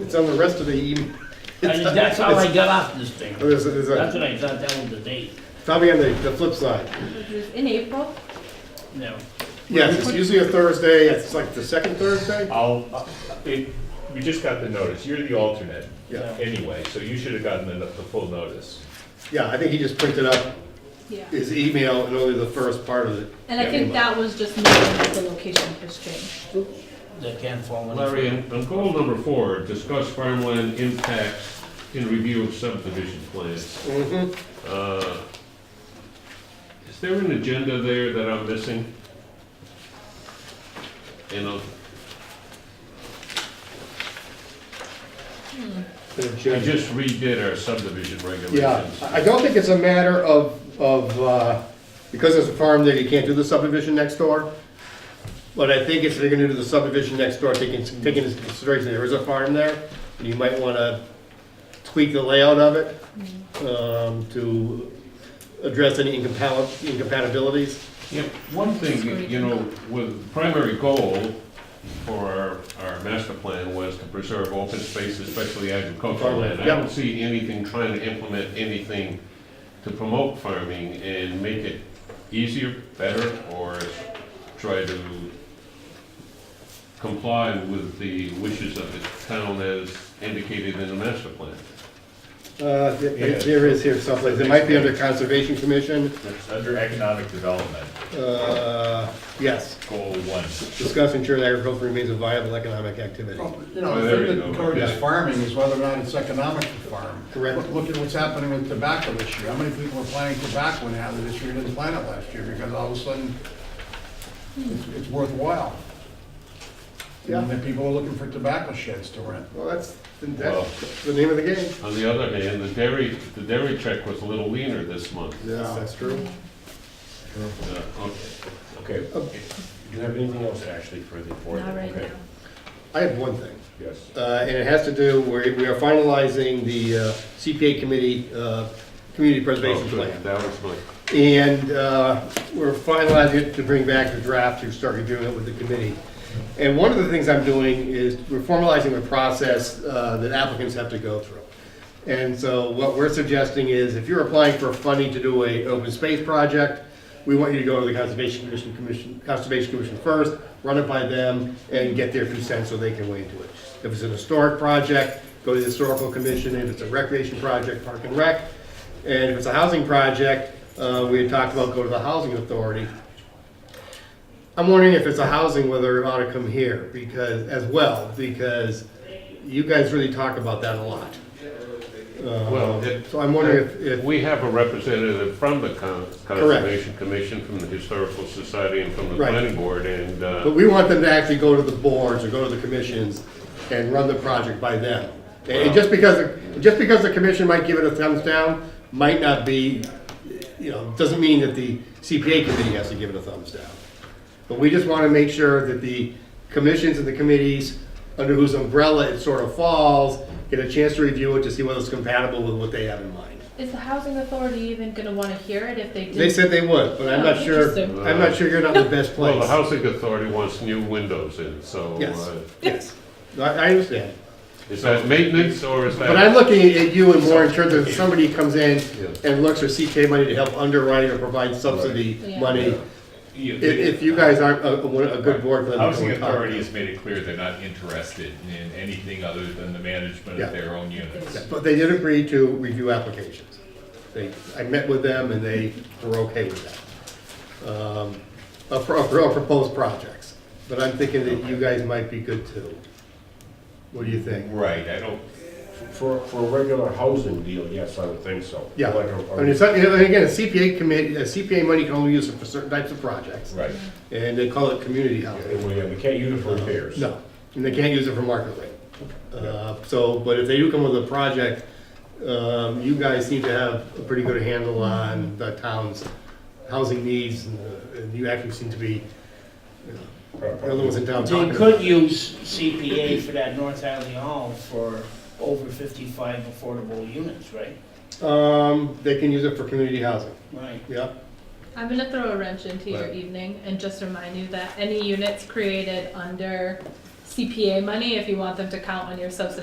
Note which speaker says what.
Speaker 1: It's on the rest of the e-, email.
Speaker 2: I- That's how I got off this thing.
Speaker 1: oh, There's, a- there's
Speaker 2: That's
Speaker 1: a,
Speaker 2: what I thought that was the date,
Speaker 1: probably on the, the flip side.
Speaker 3: Which is in April.
Speaker 2: no.
Speaker 1: Yes, it's usually a Thursday, it's like the second Thursday.
Speaker 4: I'll, uh, it, you just got the notice, you're the alternate
Speaker 1: Yeah,
Speaker 4: anyway, so you should have gotten the, the full notice.
Speaker 1: yeah, I think he just printed up
Speaker 3: Yeah.
Speaker 1: his email and only the first part of it.
Speaker 3: And I think that was just knowing that the location has changed.
Speaker 2: That can't fall any
Speaker 5: Larry,
Speaker 2: further.
Speaker 5: on on goal number four, discuss farmland impacts in review of subdivision plans.
Speaker 1: Mhm.
Speaker 5: Uh, Is there an agenda there that I'm missing? You know, we just redid our subdivision
Speaker 1: Yeah,
Speaker 5: regulations.
Speaker 1: I I don't think it's a matter of, of, uh, because it's a farm there, you can't do the subdivision next door. But I think if you're gonna do the subdivision next door, taking, taking into consideration there is a farm there, and you might wanna tweak the layout of it, um, to address any incompal- incompatibilities.
Speaker 5: Yeah, one thing, you know, with primary goal for our, our master plan was to preserve open space, especially agricultural land. I
Speaker 1: Yeah.
Speaker 5: don't see anything trying to implement anything to promote farming and make it easier, better, or try to comply with the wishes of the town as indicated in the master plan.
Speaker 1: Uh, there
Speaker 4: Yeah.
Speaker 1: there is here someplace, it might be under Conservation Commission,
Speaker 4: It's under economic development,
Speaker 1: uh, yes,
Speaker 4: goal one.
Speaker 1: discuss ensuring agriculture remains a viable economic activity.
Speaker 6: Well, You know,
Speaker 5: Oh,
Speaker 6: the
Speaker 5: there you
Speaker 6: thing
Speaker 5: go.
Speaker 6: that encourages
Speaker 5: Yeah.
Speaker 6: farming is whether or not it's economic to farm.
Speaker 1: Correct.
Speaker 6: Look- Look at what's happening with tobacco this year. How many people are planting tobacco now that this year didn't plant it last year because all of a sudden it's it's worthwhile.
Speaker 1: Yeah.
Speaker 6: And then people are looking for tobacco sheds to rent.
Speaker 1: Well, that's,
Speaker 5: Well-
Speaker 1: that's the name of the game.
Speaker 5: On the other hand, the dairy, the dairy check was a little leaner this month.
Speaker 1: Yes, that's true.
Speaker 5: Uh, okay.
Speaker 4: Okay,
Speaker 1: uh,
Speaker 4: do you have anything else actually for the board?
Speaker 3: Not right
Speaker 4: Okay.
Speaker 3: now.
Speaker 1: I have one thing,
Speaker 4: Yes.
Speaker 1: uh, and it has to do, we're- we are finalizing the uh, CPA committee, uh, community preservation
Speaker 5: Oh, good.
Speaker 1: plan.
Speaker 5: That was my
Speaker 1: And uh, we're finalizing it to bring back the draft to start reviewing it with the committee. And one of the things I'm doing is we're formalizing the process uh, that applicants have to go through. And so what we're suggesting is if you're applying for funding to do a open space project, we want you to go to the Conservation Commission, Commission, Conservation Commission first, run it by them and get their consent so they can weigh into it. If it's an historic project, go to the Historical Commission. If it's a recreation project, Park and Rec. And if it's a housing project, uh, we had talked about go to the housing authority. I'm wondering if it's a housing, whether it ought to come here because, as well, because you guys really talk about that a lot.
Speaker 5: Well,
Speaker 1: Uh,
Speaker 5: it-
Speaker 1: So I'm wondering if, if,
Speaker 5: We have a representative from the Con- Conservation Commission, from the Historical Society, and from the
Speaker 1: Right.
Speaker 5: Planning Board, and,
Speaker 1: but
Speaker 5: uh,
Speaker 1: we want them to actually go to the boards or go to the commissions and run the project by them. And and just because, just because the commission might give it a thumbs down, might not be, you know, doesn't mean that the CPA committee has to give it a thumbs down. But we just want to make sure that the commissions and the committees, under whose umbrella it sort of falls, get a chance to review it to see whether it's compatible with what they have in mind.
Speaker 3: Is the housing authority even gonna wanna hear it if they did?
Speaker 1: They said they would, but I'm not sure,
Speaker 3: Interesting.
Speaker 1: I'm not sure you're not in the best place.
Speaker 5: well, the Housing Authority wants new windows in, so
Speaker 1: Yes.
Speaker 5: uh,
Speaker 1: Yes, No, I I understand.
Speaker 5: is that maintenance, or is
Speaker 1: But I'm
Speaker 5: that?
Speaker 1: looking at you and more in terms of if somebody comes in
Speaker 5: Yeah.
Speaker 1: and looks for CK money to help underwrite or provide subsidy
Speaker 3: Yeah.
Speaker 1: money.
Speaker 4: You-
Speaker 1: If, if you guys aren't a, a- a good board for them. to
Speaker 7: Housing
Speaker 1: go and talk.
Speaker 7: Authority has made it clear they're not interested in anything other than the management
Speaker 1: Yeah.
Speaker 7: of their own units.
Speaker 1: But they did agree to review applications. They, I met with them and they were okay with that. Um, Of pro- of proposed projects, but I'm thinking that you guys might be good too. What do you think?
Speaker 7: Right, I don't,
Speaker 4: For, for a regular housing deal, yes, I would think so.
Speaker 1: Yeah,
Speaker 4: Like a-
Speaker 1: and it's, and again, a CPA commit, uh, CPA money can only be used for certain types of projects.
Speaker 4: Right,
Speaker 1: And they call it community housing.
Speaker 4: and we, we can't use it for repairs.
Speaker 1: No, and they can't use it for market rate. Uh, So, but if they do come with a project, um, you guys seem to have a pretty good handle
Speaker 2: Mm-hmm.
Speaker 1: on the town's housing needs, and, uh, and you actually seem to be, you know, the ones in town
Speaker 2: They
Speaker 1: talking about.
Speaker 2: could use CPA for that North Hadley Hall for over fifty-five affordable units, right?
Speaker 1: Um, They can use it for community housing,
Speaker 2: Right.
Speaker 1: yeah.
Speaker 3: I'm gonna throw a wrench into your
Speaker 1: Right.
Speaker 3: evening and just remind you that any units created under CPA money, if you want them to count on your subsidized